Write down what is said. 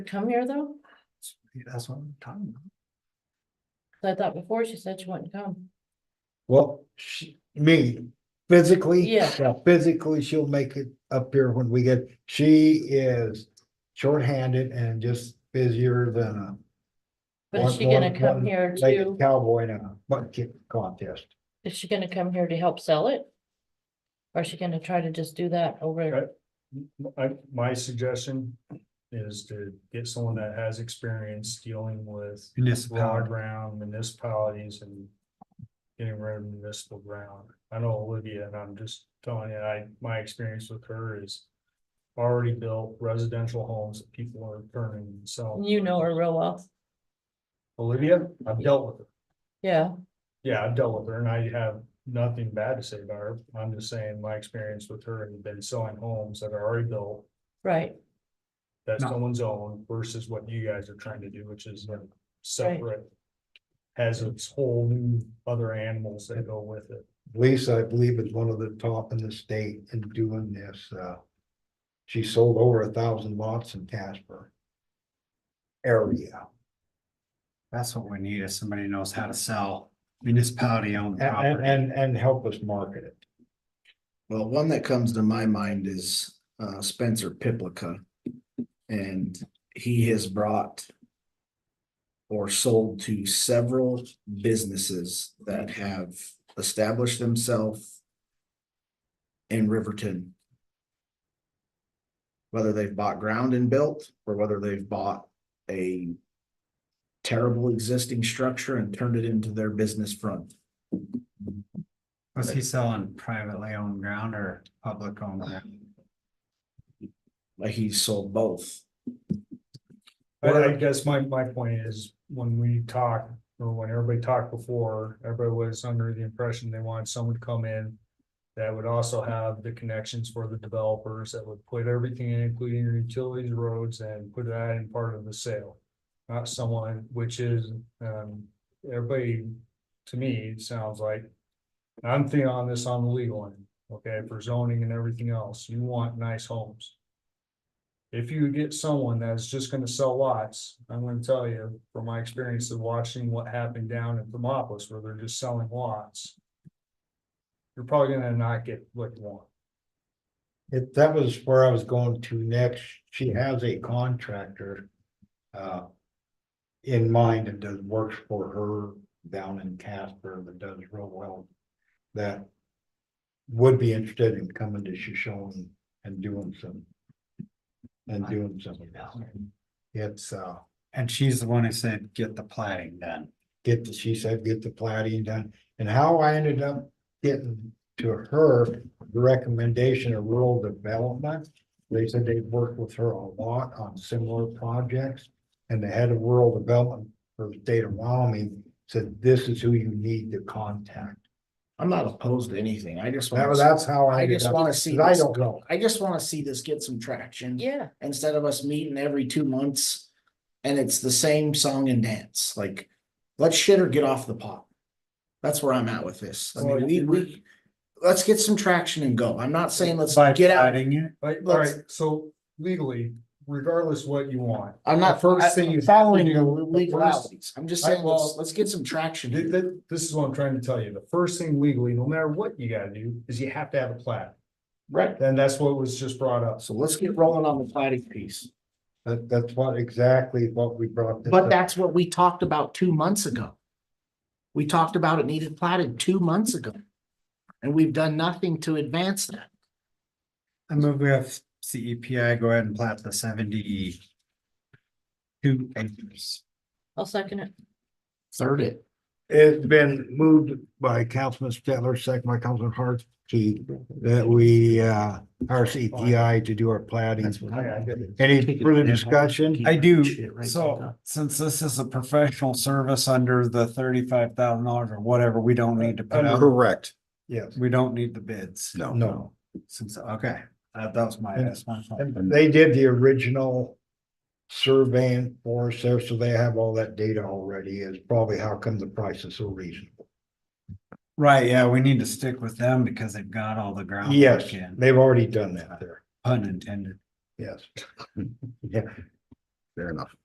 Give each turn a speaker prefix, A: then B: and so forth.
A: come here though?
B: That's what I'm talking about.
A: 'Cause I thought before she said she wouldn't come.
B: Well, she, me, physically.
A: Yeah.
B: Physically, she'll make it up here when we get, she is shorthanded and just busier than a.
A: But is she
B: one-
A: gonna
B: one-
A: come
B: one
A: here
B: like a
A: to,
B: Cowboy in a butt kick contest.
A: is she gonna come here to help sell it? Or is she gonna try to just do that over?
C: Right. I, my suggestion is to get someone that has experience dealing with raw
B: Municipality.
C: ground municipalities and. Getting rid of municipal ground. I know Olivia and I'm just telling you, I, my experience with her is. Already built residential homes that people are turning and selling.
A: You know her real well,
C: Olivia, I've dealt with her.
A: yeah,
C: Yeah, I've dealt with her and I have nothing bad to say about her. I'm just saying my experience with her has been selling homes that are already built.
A: right,
C: that
B: No.
C: someone's own versus what you guys are trying to do, which is a separate. Has its whole new other animals that go with it.
B: Lisa, I believe, is one of the top in the state in doing this, uh. She sold over a thousand lots in Casper. Area,
D: That's what we need, is somebody who knows how to sell municipality
B: and,
D: owned
B: and,
D: property.
B: and, and help us market it.
E: Well, one that comes to my mind is uh Spencer Piplica. And he has brought. Or sold to several businesses that have established themselves. In Riverton. Whether they've bought ground and built, or whether they've bought a. Terrible existing structure and turned it into their business front.
D: Was he selling privately owned ground or public owned ground?
E: Like he sold both.
C: But I guess my, my point is, when we talk, or when everybody talked before, everybody was under the impression they wanted someone to come in. That would also have the connections for the developers that would put everything in, including your utilities, roads, and put that in part of the sale. Not someone, which is, um, everybody, to me, sounds like. I'm thinking on this on the legal end, okay, for zoning and everything else, you want nice homes. If you get someone that's just gonna sell lots, I'm gonna tell you, from my experience of watching what happened down in Thermopolis where they're just selling lots. You're probably gonna not get what you want.
B: It, that was where I was going to next. She has a contractor. Uh. In mind and does works for her down in Casper that does real well. That. Would be interested in coming to Shoshone and doing some. And doing some. of this. It's, uh,
D: And she's the one who said, get the plating done.
B: get the, she said, get the plating done. And how I ended up getting to her the recommendation of rural development. They said they've worked with her a lot on similar projects. And the head of rural development for the state of Wyoming said, this is who you need to contact.
E: I'm not opposed to anything. I just
B: That
E: want,
B: was, that's how I.
E: I
B: ended
E: just
B: up-
E: wanna see
B: 'cause I
E: this,
B: don't know.
E: I just wanna see this get some traction.
A: yeah,
E: Instead of us meeting every two months. And it's the same song and dance, like, let's shit or get off the pot. That's where I'm at with this. I mean,
C: Well,
E: we, we, let's get some traction and go. I'm not saying let's
D: By
E: get out.
D: plating it?
C: Like, all
E: Let's-
C: right, so legally, regardless what you want,
E: I'm
C: the
E: not
C: first thing
E: I-
C: you have to
E: Following
C: do-
E: the
C: the first-
E: legalities. I'm just
C: I-
E: saying, let's,
C: well-
E: let's get some traction.
C: th-
E: here.
C: th- this is what I'm trying to tell you. The first thing legally, no matter what you gotta do, is you have to have a plat.
E: Right.
C: Then that's what was just brought up.
E: So let's get rolling on the plating piece.
B: That, that's what, exactly what we brought. this
E: But
B: up.
E: that's what we talked about two months ago. We talked about it needed platted two months ago. And we've done nothing to advance that.
D: I move we have CEPI E go ahead and plat the seventy two acres.
A: I'll second it.
E: Third it.
B: It's been moved by Councilman Stettler, second by Councilman Hartke, that we, uh, hire CTI to do our plating.
E: That's what I got.
B: Any further discussion?
D: I do,
E: Shit, right,
D: so
E: okay.
D: since this is a professional service under the thirty-five thousand dollars or whatever, we don't need to put out,
F: Correct,
B: Yes,
D: we don't need the bids.
F: no.
B: Uh, no.
D: Since, okay, that that was my, that's my. thought.
B: And they did the original surveying for us there, so they have all that data already. Is probably how come the price is so reasonable.
D: Right, yeah, we need to stick with them because they've got all the ground.
B: Yes,
D: in,
B: they've already done that there.
D: Pun intended.
B: Yes. Yeah. fair enough.